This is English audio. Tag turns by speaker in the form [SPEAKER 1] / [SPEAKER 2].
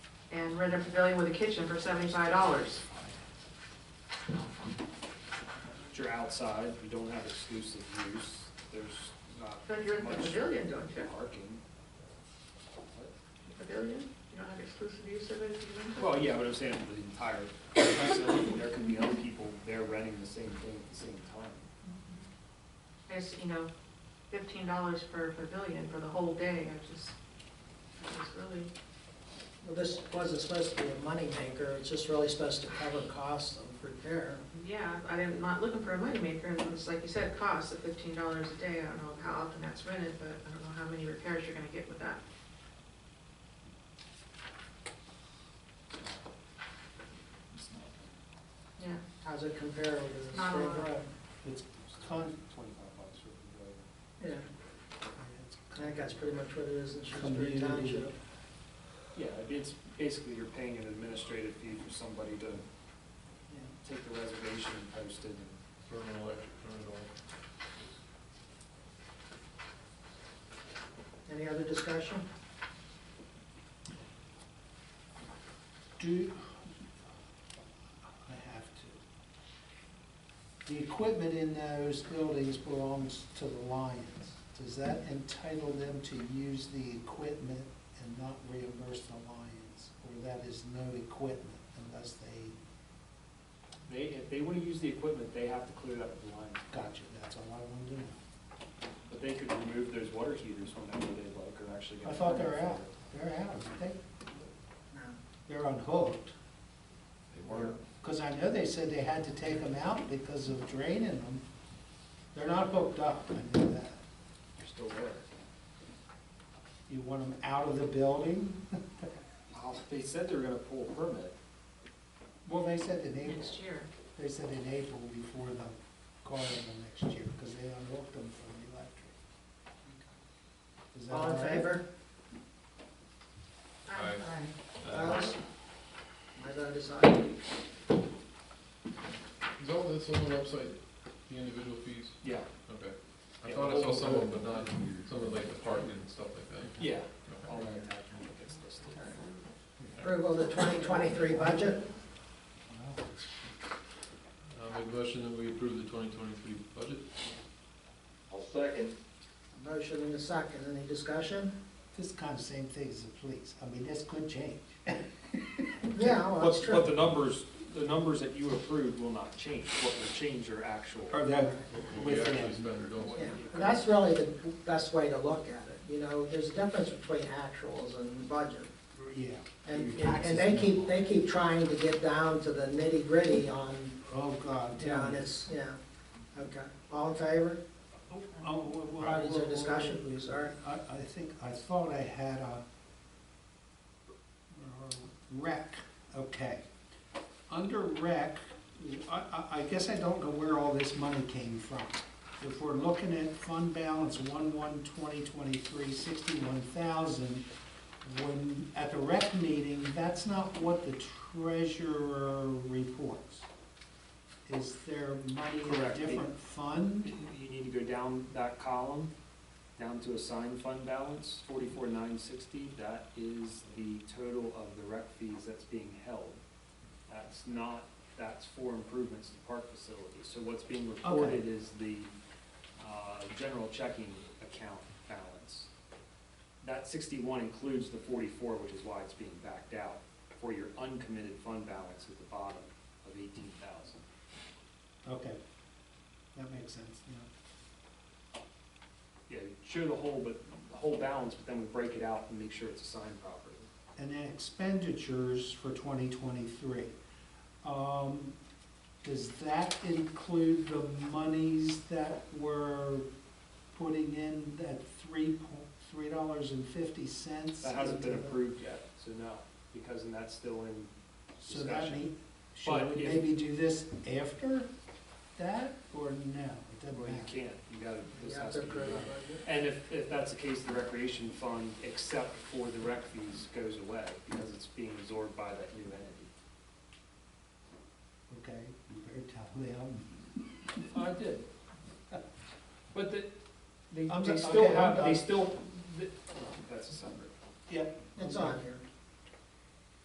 [SPEAKER 1] and rent a pavilion with a kitchen for seventy-five dollars.
[SPEAKER 2] But You're outside, you don't have exclusive use, there's not
[SPEAKER 1] But you're in the
[SPEAKER 2] Much.
[SPEAKER 1] pavilion, don't you?
[SPEAKER 2] parking.
[SPEAKER 1] Pavilion? You don't have exclusive use of it? if you rent it?
[SPEAKER 2] Well, yeah, but I'm saying for the entire facility, there could be other people there renting the same thing at the same time.
[SPEAKER 1] It's, you know, fifteen dollars per pavilion for the whole day, I just, I just really,
[SPEAKER 3] Well, this wasn't supposed to be a moneymaker, it's just really supposed to cover costs of repair.
[SPEAKER 1] yeah, I'm not looking for a moneymaker, and it's like you said, costs of fifteen dollars a day, I don't know how often that's rented, but I don't know how many repairs you're gonna get with that.
[SPEAKER 2] It's not-
[SPEAKER 1] Yeah,
[SPEAKER 3] How's it compare with the
[SPEAKER 1] Not a
[SPEAKER 3] spring
[SPEAKER 1] lot.
[SPEAKER 3] road?
[SPEAKER 2] It's con, twenty-five bucks for the
[SPEAKER 3] Yeah, I think that's pretty much what it is in Shrewsbury
[SPEAKER 4] Community.
[SPEAKER 3] Township.
[SPEAKER 2] building. Yeah, it'd be- it's basically you're paying an administrative fee for somebody to
[SPEAKER 3] Yeah.
[SPEAKER 2] take the reservation and post it. and-
[SPEAKER 4] Vernon Electric, turn it on.
[SPEAKER 3] Any other discussion?
[SPEAKER 4] Do, I have to. The equipment in those buildings belongs to the Lions. Does that entitle them to use the equipment and not reimburse the Lions? Or that is no equipment unless they,
[SPEAKER 2] They, if they wanna use the equipment, they have to clear that with the line,
[SPEAKER 4] gotcha, that's all I wanted to know.
[SPEAKER 2] but they could remove those water heaters whenever they like, or actually. get
[SPEAKER 4] I thought they
[SPEAKER 2] a
[SPEAKER 4] were
[SPEAKER 2] permit
[SPEAKER 4] out,
[SPEAKER 2] for it.
[SPEAKER 4] they're out, aren't they,
[SPEAKER 3] No.
[SPEAKER 4] they're unhooked.
[SPEAKER 2] They weren't.
[SPEAKER 4] Because I know they said they had to take them out because of draining them. They're not hooked up, I know that.
[SPEAKER 2] They're still there.
[SPEAKER 4] You want them out of the building?
[SPEAKER 2] Wow, They said they were gonna pull a permit.
[SPEAKER 4] Well, they said in April,
[SPEAKER 1] next year.
[SPEAKER 4] they said in April before the carnival next year, because they unhooked them from the electric. Is that
[SPEAKER 3] All in
[SPEAKER 4] right?
[SPEAKER 3] favor?
[SPEAKER 1] Aye.
[SPEAKER 4] Uh,
[SPEAKER 3] Opposed? My vote is aye.
[SPEAKER 5] Is all this on the website, the individual fees?
[SPEAKER 2] Yeah,
[SPEAKER 5] Okay. I
[SPEAKER 2] Yeah,
[SPEAKER 5] thought I
[SPEAKER 2] all
[SPEAKER 5] saw
[SPEAKER 2] of
[SPEAKER 5] some
[SPEAKER 2] them.
[SPEAKER 5] of them, but not some of like the parking and stuff like that.
[SPEAKER 2] yeah.
[SPEAKER 5] Okay.
[SPEAKER 2] All that attachment gets listed.
[SPEAKER 3] Approval of the 2023 budget.
[SPEAKER 5] I'll make a motion that we approve the twenty twenty-three budget.
[SPEAKER 6] I'll second.
[SPEAKER 3] Motion and a second, any discussion?
[SPEAKER 4] This is kind of same thing as the police. I mean, this could change.
[SPEAKER 3] Yeah, well, that's
[SPEAKER 2] But, but the
[SPEAKER 3] true.
[SPEAKER 2] numbers, the numbers that you approved will not change, what will change are actual.
[SPEAKER 4] Or that,
[SPEAKER 5] What we
[SPEAKER 4] with
[SPEAKER 5] actually
[SPEAKER 4] them.
[SPEAKER 5] spend or don't
[SPEAKER 3] Yeah,
[SPEAKER 5] spend.
[SPEAKER 3] and that's really the best way to look at it, you know, there's a difference between actuals and budget.
[SPEAKER 4] Yeah.
[SPEAKER 3] And,
[SPEAKER 4] Your
[SPEAKER 3] and
[SPEAKER 4] taxes
[SPEAKER 3] they
[SPEAKER 4] and-
[SPEAKER 3] keep, they keep trying to get down to the nitty gritty on,
[SPEAKER 4] Oh, God,
[SPEAKER 3] you know,
[SPEAKER 4] tell
[SPEAKER 3] and
[SPEAKER 4] me.
[SPEAKER 3] it's, yeah, okay. All in favor?
[SPEAKER 4] Oh, oh, well, well,
[SPEAKER 3] All right, is there
[SPEAKER 4] well, well,
[SPEAKER 3] discussion?
[SPEAKER 4] well,
[SPEAKER 3] Sorry.
[SPEAKER 4] I, I think, I thought I had a a rec, okay. Under rec, I, I, I guess I don't know where all this money came from. If we're looking at fund balance one one twenty twenty-three, sixty-one thousand, when, at the rec meeting, that's not what the treasurer reports. Is there money in a
[SPEAKER 2] Correct.
[SPEAKER 4] different fund?
[SPEAKER 2] You need to go down that column, down to assigned fund balance, forty-four nine sixty, that is the total of the rec fees that's being held. That's not, that's for improvements to park facilities, so what's being reported is the, uh, general checking account balance. That sixty-one includes the forty-four, which is why it's being backed out, for your uncommitted fund balance at the bottom of eighteen thousand.
[SPEAKER 4] Okay, that makes sense, yeah.
[SPEAKER 2] Yeah, show the whole, but, the whole balance, but then we break it out and make sure it's assigned properly.
[SPEAKER 4] And then expenditures for twenty twenty-three. Um, does that include the monies that we're putting in at three po- three dollars and fifty cents?
[SPEAKER 2] That hasn't been approved yet, so no, because then that's still in,
[SPEAKER 4] So that
[SPEAKER 2] discussion.
[SPEAKER 4] need,
[SPEAKER 2] But
[SPEAKER 4] should we
[SPEAKER 2] if-
[SPEAKER 4] maybe do this after that, or no? It doesn't
[SPEAKER 2] well, you
[SPEAKER 4] matter.
[SPEAKER 2] can't, you gotta,
[SPEAKER 3] You
[SPEAKER 2] this
[SPEAKER 3] have
[SPEAKER 2] has
[SPEAKER 3] to
[SPEAKER 2] to be.
[SPEAKER 3] approve
[SPEAKER 2] done.
[SPEAKER 3] it.
[SPEAKER 2] And if, if that's the case, the recreation fund, except for the rec fees, goes away, because it's being absorbed by that new entity.
[SPEAKER 4] Okay, you better tell them.
[SPEAKER 2] I did. But the, they,
[SPEAKER 4] I'm
[SPEAKER 2] they
[SPEAKER 4] so-
[SPEAKER 2] still
[SPEAKER 4] okay, I'm
[SPEAKER 2] have,
[SPEAKER 4] done.
[SPEAKER 2] they still, th- that's a separate.
[SPEAKER 4] Yep.
[SPEAKER 3] It's on here.